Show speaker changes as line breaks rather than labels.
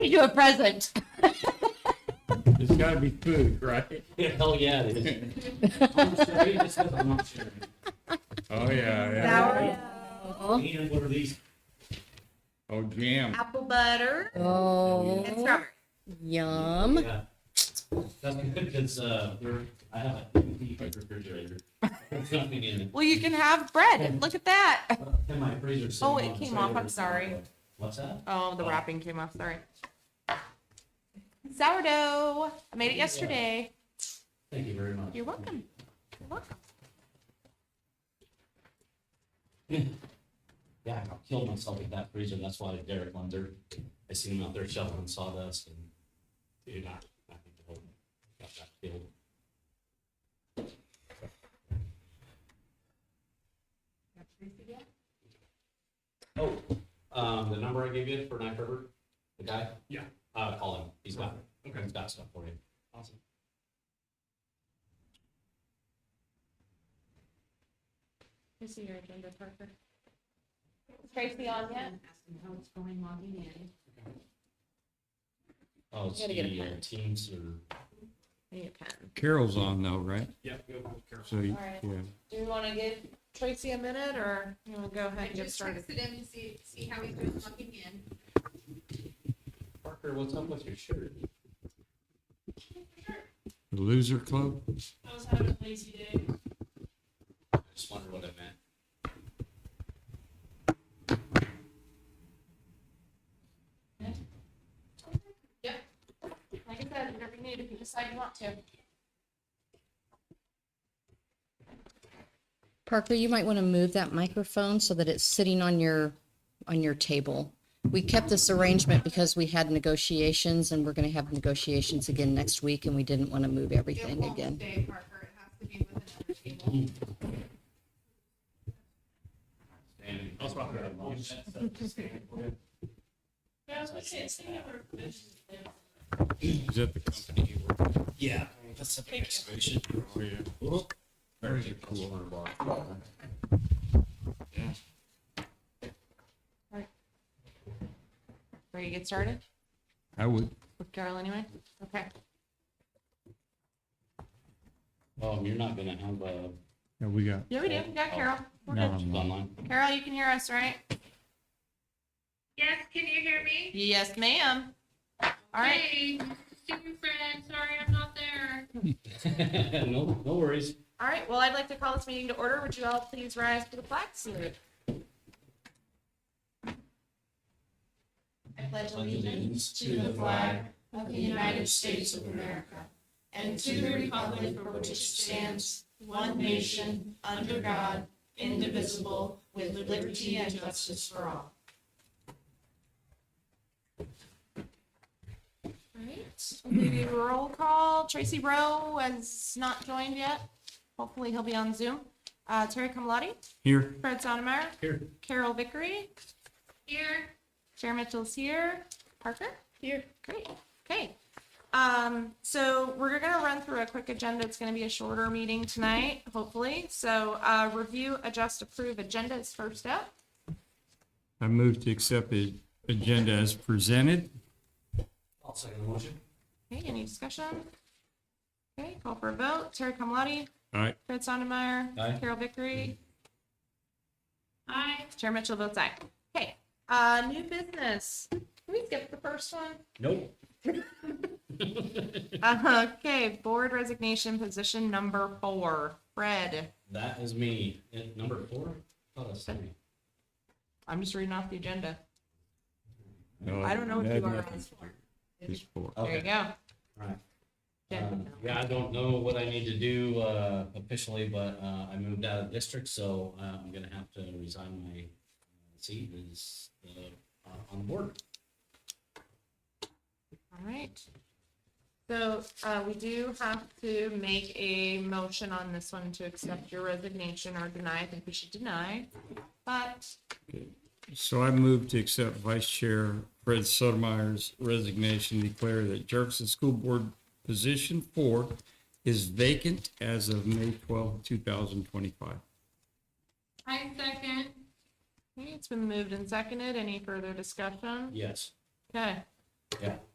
you a present.
It's gotta be food, right?
Hell yeah, it is. I'm sorry, this is a luxury.
Oh, yeah, yeah.
sourdough,
And what are these?
Oh, jam.
apple butter, and
Oh,
strawberry.
yum.
Yeah. That's good because uh, they're, I have a deep refrigerator. There's nothing in it.
Well, you can have bread. Look at that.
And my freezer's
Oh,
sitting
it
on
came
the
off. I'm
trailer, so-
sorry.
What's that?
Oh, the
Oh.
wrapping came off. Sorry. Sourdough. I made it
Yeah.
yesterday.
Thank you very much.
You're welcome. You're welcome.
Yeah, I killed myself with that freezer. That's why Derek Lunder, I seen him out there shoveling sawdust and dude, I, I think the whole got that killed. Oh, um, the number I gave you for Knife River, the guy?
Yeah.
Uh, call him. He's got, he's got stuff for you.
Awesome.
Is your agenda, Parker? Is Tracy on yet?
Mm-hmm.
Oh, it's
Gotta get a
the uh,
pen.
Teams or,
I need a pen.
Carol's on though, right?
Yeah, go with Carol.
So, you-
Alright.
yeah.
Do we want to give Tracy a minute or you want to go ahead
I
and get
just
started?
texted him to see, see how he's doing logging in.
Parker, what's up with your shirt?
The loser club?
I was having a lazy day.
I just wondered what it meant.
Like I said, whatever you need, if you decide you want to.
Parker, you might want to move that microphone so that it's sitting on your, on your table. We kept this arrangement because we had negotiations and we're going to have negotiations again next week and we didn't want to move
It
everything
won't
again.
stay, Parker. It has to be with another table.
Standing.
I'll swap it out.
Is that the company you work for?
Yeah, that's a big excavation.
Oh, yeah.
Very cool.
Ready to get started
I would.
with Carol anyway? Okay.
Um, you're not gonna have a.
Yeah, we got.
Yeah, we do. We got Carol. We're
No.
good.
Um,
Online.
Carol, you can hear us, right?
Yes, can you hear me?
Yes, ma'am. All right.
Hey, student friend, sorry I'm not there.
No, no worries.
All right, well, I'd like to call this meeting to order. Would you all please rise to the flag salute? I pledge
Allegiance
to the flag of the United States of America and to the republic for which it stands, one nation, under God, indivisible, with liberty and justice for all.
All right, we'll do a roll call. Tracy Rowe has not joined yet. Hopefully, he'll be on Zoom. Uh, Terry Camalotti,
Here.
Fred Sonnemeyer,
Here.
Carol Vickery,
Here.
Chair Mitchell's here. Parker?
Here.
Great, okay. Um, so we're gonna run through a quick agenda. It's gonna be a shorter meeting tonight, hopefully. So, uh, review, adjust, approve agenda is first up.
I move to accept the agenda as presented.
I'll second the motion.
Okay, any discussion? Okay, call for a vote. Terry Kamalotti,
All right.
Fred Sondermeyer.
Aye.
Carol Vickery.
Aye.
Chair Mitchell votes aye. Okay, uh, new business. Can we skip the first one?
Nope.
Uh, okay, board resignation position number four. Fred,
That is me. And number four? Oh, that's me.
I'm just reading off the agenda.
No,
I don't know what
that
you are
nothing.
on.
Just four.
There you
Okay.
go.
All right.
Yeah.
Um, Yeah, I don't know what I need to do uh, officially, but uh, I moved out of district, so uh, I'm gonna have to resign my uh, seat as uh, on the board.
All right. So uh, we do have to make a motion on this one to accept your resignation or deny. I think we should deny. But
So I move to accept Vice Chair Fred Sotomayor's resignation, declare that Jefferson School Board position four is vacant as of May 12, 2025.
I second.
okay, it's been moved and seconded. Any further discussion?
Yes.
Okay.
Yeah.